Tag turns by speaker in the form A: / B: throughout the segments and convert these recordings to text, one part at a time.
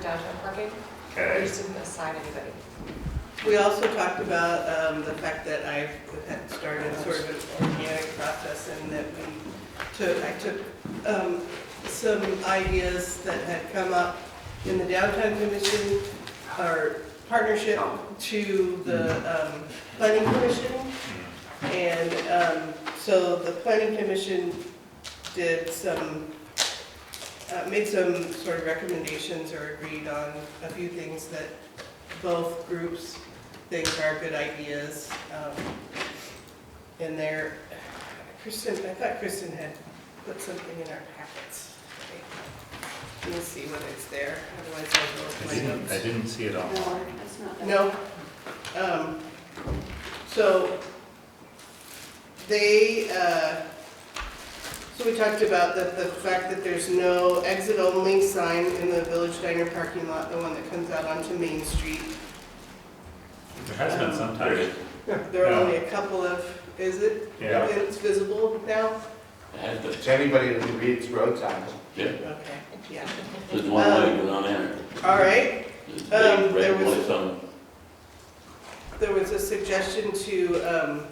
A: downtown parking. We
B: Okay,
A: just didn't assign anybody.
C: We also talked about um, the fact that I had started sort of an organic process and that we took, I took um, some ideas that had come up in the downtown commission, our partnership to the um, planning commission. And um, so the planning commission did some, uh, made some sort of recommendations or agreed on a few things that both groups think are good ideas. um, And there, Kristen, I thought Kristen had put something in our packets. Let me see whether it's there, otherwise
B: I
C: I'll go
B: didn't,
C: with my
B: I
C: notes.
B: didn't see it online.
D: No, that's not. that.
C: No. Um, So they, uh, so we talked about the, the fact that there's no exit only sign in the Village Diner parking lot, the one that comes out onto Main Street.
E: There has been some time.
C: There are
E: Yeah.
C: only a couple of, is it,
E: Yeah.
C: it's visible now?
F: Had the-
G: To anybody that reads road signs,
F: Yeah,
C: Okay, yeah.
F: there's one way to get on there.
C: All right,
F: There's a
C: Um,
F: big
C: there
F: red
C: was-
F: place on
C: there was a suggestion to um,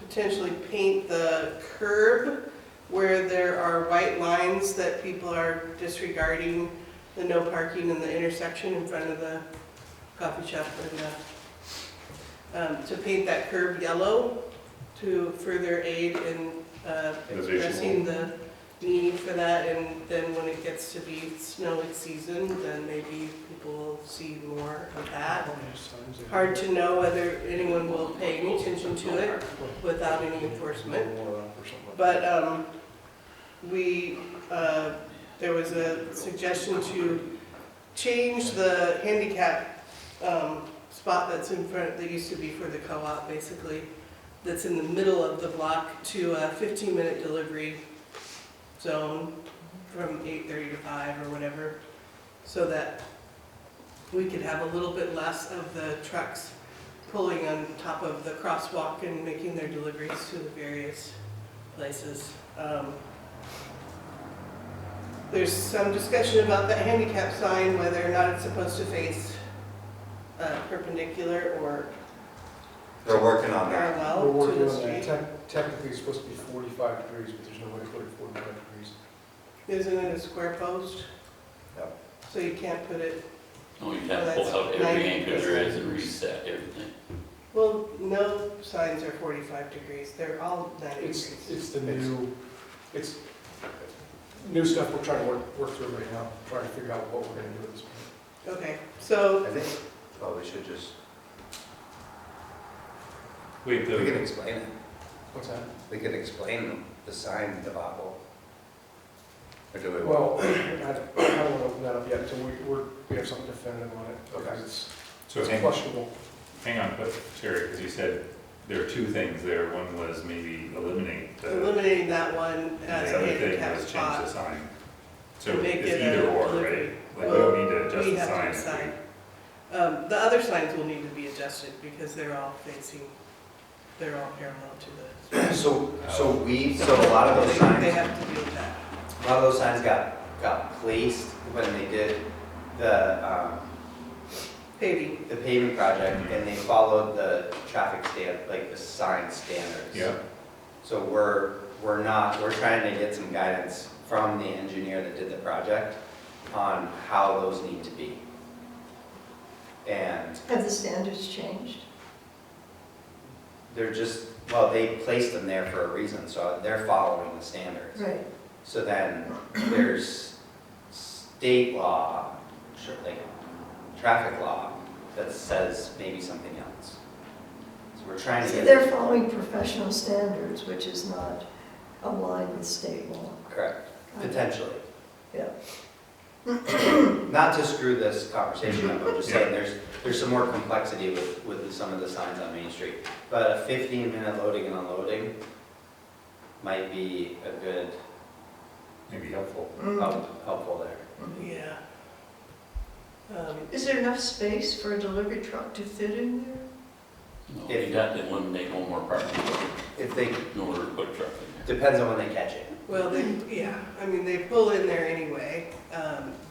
C: potentially paint the curb where there are white lines that people are disregarding the no parking in the intersection in front of the coffee shop and the, um, to paint that curb yellow to further aid in uh,
B: The visual.
C: addressing the need for that. And then when it gets to be snowy season, then maybe people will see more of that. Hard to know whether anyone will pay any attention to it without any enforcement. But um, we, uh, there was a suggestion to change the handicap um, spot that's in front, that used to be for the co-op, basically, that's in the middle of the block to a 15-minute delivery zone from 8:30 to 5 or whatever, so that we could have a little bit less of the trucks pulling on top of the crosswalk and making their deliveries to the various places. Um, There's some discussion about the handicap sign, whether or not it's supposed to face uh, perpendicular or
G: they're working on that.
H: We're
C: parallel uh, to
H: working
C: the
H: on
C: street.
H: that. Tec- Technically, it's supposed to be 45 degrees, but there's no way to put it 45 degrees.
C: Isn't it a square post?
G: Yep.
C: So you can't put it,
F: Oh, you have to pull out every anchor there is and reset everything.
C: well, no signs are 45 degrees, they're all 90
H: It's,
C: degrees.
H: it's the new, it's new stuff we're trying to work, work through right now, trying to figure out what we're gonna do with this.
C: Okay, so
G: I think, well, we should just,
E: Wait,
G: we can
E: the,
G: explain it.
H: What's that?
G: We could explain the sign debacle. Or do we?
H: Well, I I don't want to open that up yet until we, we're, we have something definitive on it.
G: Okay.
H: Because it's
E: so
H: it's
E: hang,
H: flushable.
E: hang on, but Sherry, because you said there were two things there. One was maybe eliminate the,
C: eliminating that one
E: and
C: as
E: the
C: a
E: other thing
C: handicap
E: was change the
C: spot.
E: sign. So
C: Make
E: it's
C: it a
E: either or, right?
C: delivery.
E: Like, we don't need to adjust
C: We
E: the
C: have to
E: sign.
C: decide. Um, The other signs will need to be adjusted because they're all facing, they're all parallel to the,
G: So, so we, so a lot of those
C: they
G: signs,
C: have to do with that.
G: a lot of those signs got, got placed when they did the, um,
C: Paving,
G: the paving project, and they followed the traffic stand, like the sign standards.
E: Yeah,
G: So we're, we're not, we're trying to get some guidance from the engineer that did the project on how those need to be. And
I: Have the standards changed?
G: they're just, well, they placed them there for a reason, so they're following the standards.
I: Right.
G: So then there's state law, sure, like traffic law, that says maybe something else. So we're trying to
I: So
G: get.
I: they're following professional standards, which is not aligned with state law.
G: Correct, potentially.
I: Yeah.
G: Not to screw this conversation up, I'm just saying,
E: Yeah.
G: there's, there's some more complexity with, with some of the signs on Main Street. But a fifteen minute loading and unloading might be a good,
E: maybe helpful.
I: Mm.
G: help- helpful there.
C: yeah. Um,
I: Mm-hmm. Is there enough space for a delivery truck to fit in there?
F: No,
G: Yeah.
F: you got to eliminate one more parking lot
G: If they,
F: in order to put a truck in there.
G: depends on when they catch it.
C: Well, they, yeah, I mean, they pull in there anyway. Um,